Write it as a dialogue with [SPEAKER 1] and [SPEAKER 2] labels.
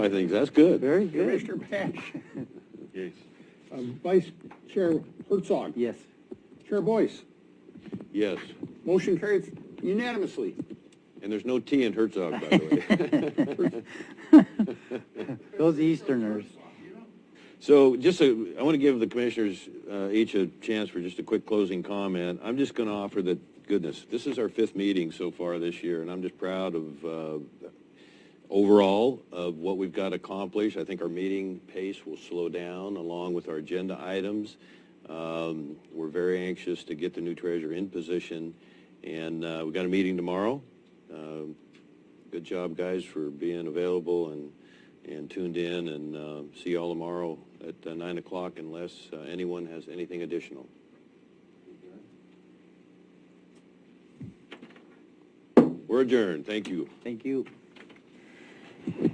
[SPEAKER 1] I think that's good.
[SPEAKER 2] Very good.
[SPEAKER 3] Commissioner Patch,
[SPEAKER 1] Yes.
[SPEAKER 3] um, Vice Chair Herzog.
[SPEAKER 2] Yes.
[SPEAKER 3] Chair Boyce,
[SPEAKER 1] Yes,
[SPEAKER 3] motion carried unanimously.
[SPEAKER 1] and there's no T in Herzog, by the way.
[SPEAKER 2] Those Easterners.
[SPEAKER 1] So just, a- I want to give the commissioners uh, each a chance for just a quick closing comment. I'm just going to offer that, goodness, this is our fifth meeting so far this year, and I'm just proud of, uh, overall, of what we've got accomplished. I think our meeting pace will slow down along with our agenda items. Um, We're very anxious to get the new treasurer in position, and uh, we've got a meeting tomorrow. Um, Good job, guys, for being available and, and tuned in, and um, see y'all tomorrow at uh, 9 o'clock unless uh, anyone has anything additional. We're adjourned. Thank you.
[SPEAKER 2] Thank you.